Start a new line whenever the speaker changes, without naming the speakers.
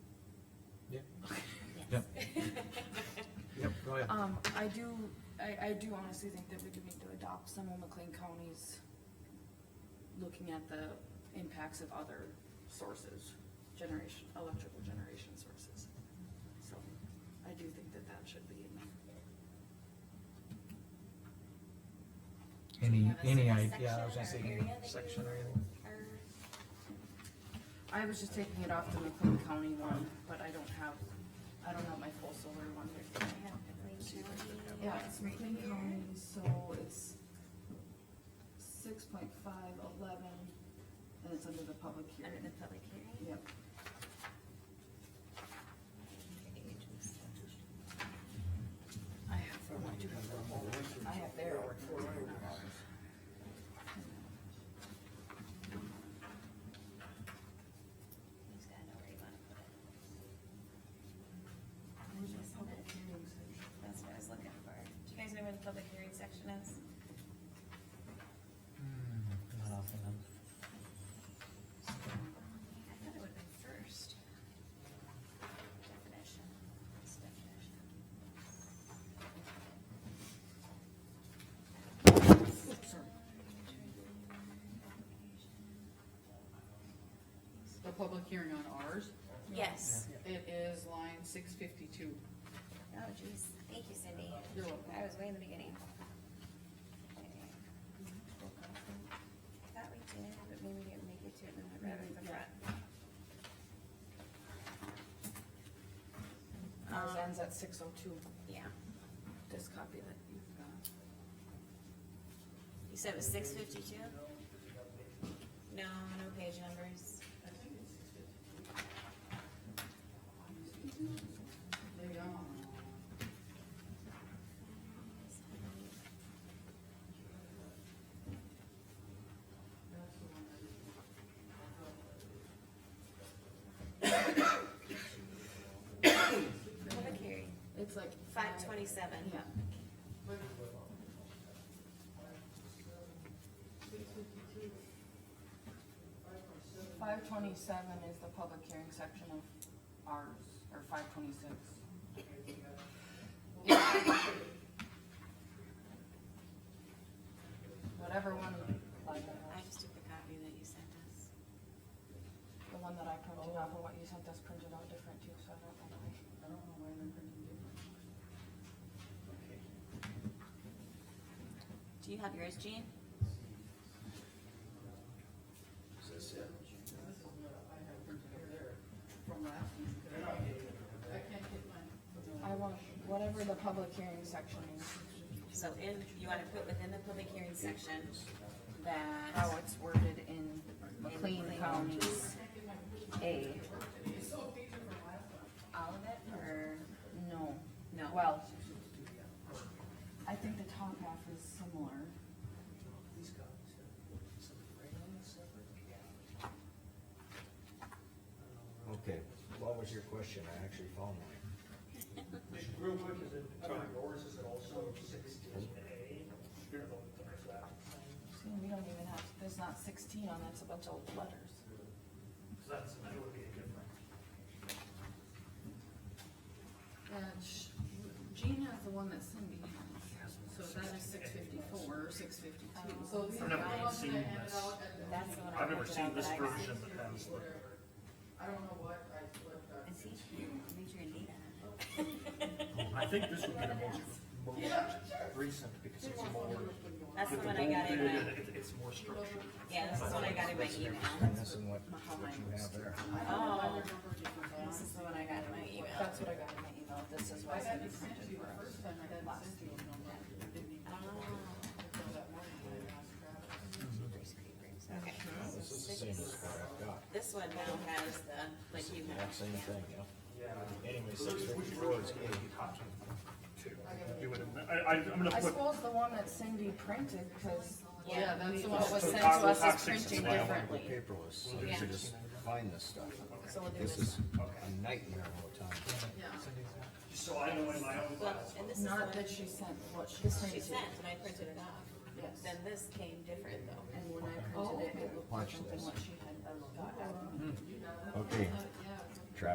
Yep. Yep, go ahead.
Um, I do, I, I do honestly think that we do need to adopt some of McLean County's looking at the impacts of other sources, generation, electrical generation sources. So I do think that that should be in
Any,
Do you
any,
have a
i-
section
yeah, I was gonna
or
say,
area
any
that you
section or anything.
are-
I was just taking it off the McLean County one, but I don't have, I don't have my full solar one
I
here.
have McLean County.
Yeah, it's McLean County, so it's six point five eleven, and it's under the public
Under the
hearing.
public hearing.
Yep. I have for my two. I have their ordinance. not ours.
He's gotta know where you wanna put it.
Where's the public hearing section?
That's what I was looking for. Do you guys know where the public hearing section is?
Not often,
I thought it would've been first. Definition, it's definition.
The public hearing on ours,
Yes.
it is line six fifty-two.
Oh geez, thank you Cindy.
You're welcome.
I was way in the beginning. Okay. Mm-hmm. I Thought we did, but maybe we didn't make it to it, and I read it in the front. Um,
Ours Uh, ends at six oh two,
Yeah.
this copy that you've got.
You said it was six fifty-two? No, no page numbers.
They are.
Public hearing,
It's like.
five twenty-seven.
Yeah. Five twenty-seven is the public hearing section of ours, or five twenty-six. Whatever one, like,
I
uh,
just took the copy that you sent us.
the one that I printed off and what you sent us printed out different too, so I don't know why.
I don't know why they're printing different.
Do you have yours, Jean?
This is what I have printed over there from last week. I can't get mine.
I want whatever the public hearing section is.
So in, you wanna put within the public hearing section
how
that
Oh, it's worded in McLean County's A.
all of it, or
No,
no?
well, I think the top half is similar.
Okay, what was your question? I actually found mine.
Real quick, is it, under yours, is it also sixteen A? Here, look, there's that.
See, we don't even have, there's not sixteen on that's a bunch of letters.
Cause that's, that would be a different.
And sh- Jean has the one that Cindy has, so that is six fifty-four, six fifty-two.
Oh.
So these are
I've
the
never even
ones that
seen
handed
this.
out at the-
That's the one I
I've never
printed
seen
out
this
that I got.
version that has the.
I don't know what I slipped up.
Is he, I need your data.
I think this would be the most, most recent, because it's more.
That's the
with
one I got in
bold
my,
period, it- It's more structured.
yeah, this is the one I got in my email.
I'm missing what, what you have there.
Oh, this is the one I got in my email.
That's what I got in my email, this is
I
what
had
Cindy
it sent to
printed
you
for
the
us.
first time, I had it sent to you. and I'm like, I didn't even-
Oh,
until that morning when I asked Travis.
okay.
This is the same as what I've got.
This one now has the, like you
That
have.
same thing, yeah. Anyway, six fifty-four is A.
You would, I, I, I'm
I
gonna put,
suppose the one that Cindy printed, cause
Yeah, that's the one.
what was
So
sent to
Taco
us is
Toxics is
printing
my only
differently.
Paperless, so you
Yeah.
should just find this stuff.
So we'll do
This
this.
is a nightmare all the time.
Yeah.
so I know in my own
Well,
files.
and this is the one
Not that she sent what she sent.
she sent, and I printed it off.
Yes.
Then this came different though.
And when I printed it, it looked
Watch
different than
this.
what she had, uh, got out.
Okay,